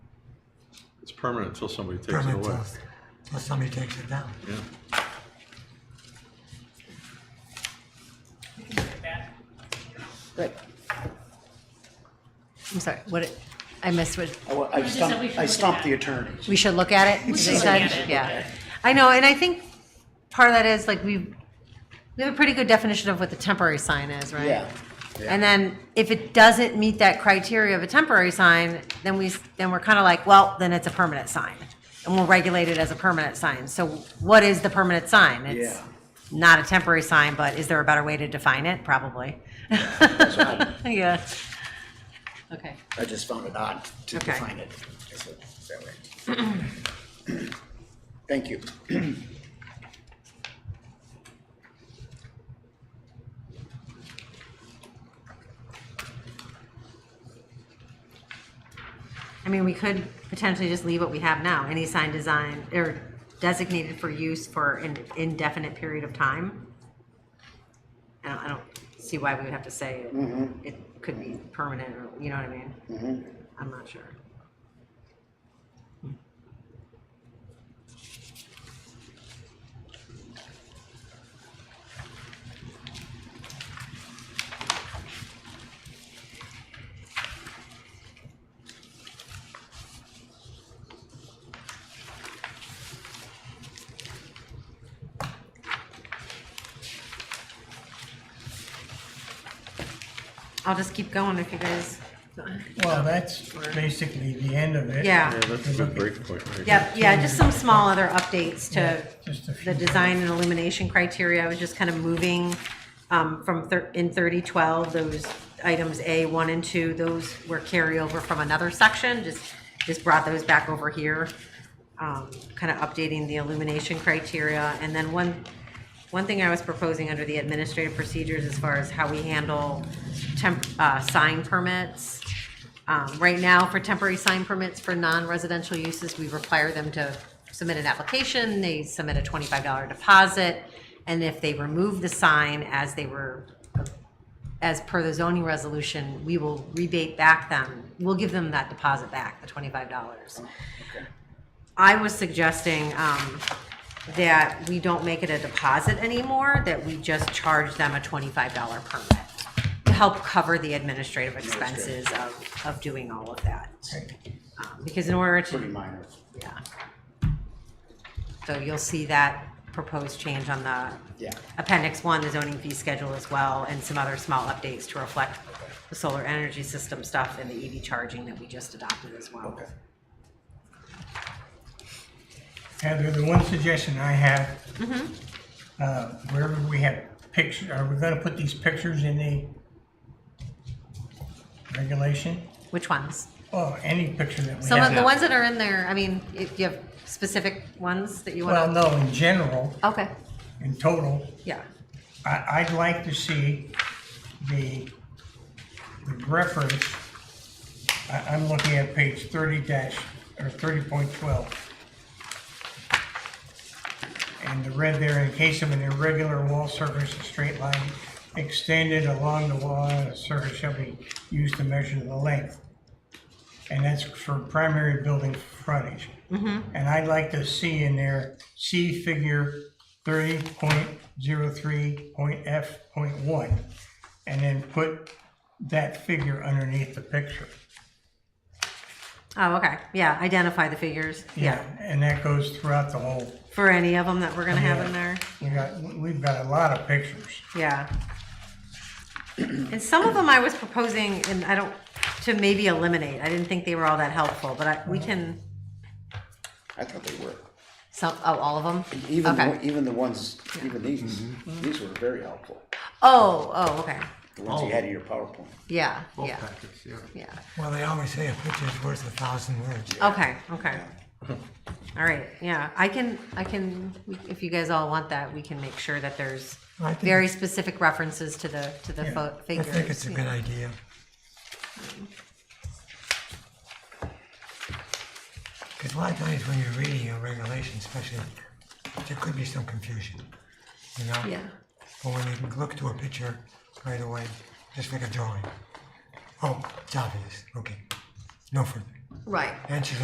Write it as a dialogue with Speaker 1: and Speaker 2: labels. Speaker 1: It's permanent until somebody takes it
Speaker 2: permanent
Speaker 1: away.
Speaker 2: till, till somebody takes it down.
Speaker 1: Yeah.
Speaker 3: Good. I'm sorry, what, it- I missed what,
Speaker 4: I wa- I
Speaker 5: just said we
Speaker 4: stumped,
Speaker 5: should
Speaker 4: I
Speaker 5: look at
Speaker 4: stumped
Speaker 5: that.
Speaker 4: the attorney.
Speaker 3: we should look at it?
Speaker 5: should
Speaker 3: They
Speaker 5: look at
Speaker 3: said-
Speaker 5: it.
Speaker 3: Yeah. I know, and I think part of that is like we, we have a pretty good definition of what the temporary sign is, right?
Speaker 4: Yeah.
Speaker 3: And then if it doesn't meet that criteria of a temporary sign, then we, then we're kind of like, well, then it's a permanent sign. And we'll regulate it as a permanent sign. So what is the permanent sign? It's
Speaker 4: Yeah.
Speaker 3: not a temporary sign, but is there a better way to define it? Probably. Yeah. Okay.
Speaker 4: I just found it odd to
Speaker 3: Okay.
Speaker 4: define it. as a- that way. Thank you.
Speaker 3: I mean, we could potentially just leave what we have now, any sign designed or designated for use for an indefinite period of time. I don't, I don't see why we would have to say it. it could be permanent, or, you know what I mean? I'm not sure. I'll just keep going if you guys,
Speaker 6: Well, that's basically the end of it.
Speaker 3: yeah.
Speaker 1: Yeah, that's a good break point right there.
Speaker 3: Yep, yeah, just some small other updates to
Speaker 6: Just a few.
Speaker 3: the design and illumination criteria. I was just kind of moving um, from, thir- in 3012, those items A, 1, and 2, those were carryover from another section, just, just brought those back over here. Kind of updating the illumination criteria. And then one, one thing I was proposing under the administrative procedures as far as how we handle temp, uh, sign permits. Um, right now, for temporary sign permits for non-residential uses, we require them to submit an application, they submit a twenty-five dollar deposit, and if they remove the sign as they were, as per the zoning resolution, we will rebate back them, we'll give them that deposit back, the twenty-five dollars. I was suggesting um, that we don't make it a deposit anymore, that we just charge them a $25 permit to help cover the administrative expenses of, of doing all of that. Um, Because in order
Speaker 4: Pretty
Speaker 3: to,
Speaker 4: minor.
Speaker 3: yeah. So you'll see that proposed change on the
Speaker 4: Yeah.
Speaker 3: appendix one, the zoning fee schedule as well, and some other small updates to reflect the solar energy system stuff and the EV charging that we just adopted as well.
Speaker 4: Okay.
Speaker 6: Heather, the one suggestion I have,
Speaker 3: Mm-hmm.
Speaker 6: uh, wherever we have pictures, are we gonna put these pictures in the regulation?
Speaker 3: Which ones?
Speaker 6: Oh, any picture that we
Speaker 3: Some of
Speaker 6: have.
Speaker 3: the ones that are in there, I mean, if you have specific ones that you
Speaker 6: Well,
Speaker 3: want
Speaker 6: no, in general,
Speaker 3: to. Okay,
Speaker 6: in total,
Speaker 3: yeah,
Speaker 6: I, I'd like to see the, the reference, I, I'm looking at page thirty dash, or thirty point twelve. And the red there, in case of an irregular wall surface, a straight line extended along the wall, a surface shall be used to measure the length. And that's for primary building frontage. And I'd like to see in there, see figure thirty point zero three point F point one, and then put that figure underneath the picture.
Speaker 3: oh, okay, yeah, identify the figures, yeah,
Speaker 6: And that goes throughout the whole,
Speaker 3: for any of them that we're gonna have in there,
Speaker 6: we got, we've got a lot of pictures.
Speaker 3: yeah. And some of them I was proposing, and I don't, to maybe eliminate, I didn't think they were all that helpful, but I, we can,
Speaker 4: I thought they were.
Speaker 3: some, oh, all of them?
Speaker 4: Even, the
Speaker 3: Okay.
Speaker 4: one- even the ones, even these, these were very helpful.
Speaker 3: Oh, oh, okay,
Speaker 4: The ones you had in your PowerPoint.
Speaker 3: yeah,
Speaker 1: Full
Speaker 3: yeah,
Speaker 1: package, yeah.
Speaker 3: yeah,
Speaker 2: Well, they always say a picture's worth a thousand words.
Speaker 3: okay, okay. All right, yeah, I can, I can, we- if you guys all want that, we can make sure that there's
Speaker 2: I think-
Speaker 3: very specific references to the, to the fo-
Speaker 2: I
Speaker 3: figures.
Speaker 2: think it's a good idea. Because a lot of times when you're reading a regulation, especially, there could be some confusion, you know?
Speaker 3: Yeah,
Speaker 2: But when you can look to a picture right away, just like a drawing. Oh, it's obvious, okay, no further.
Speaker 3: right.
Speaker 2: And she's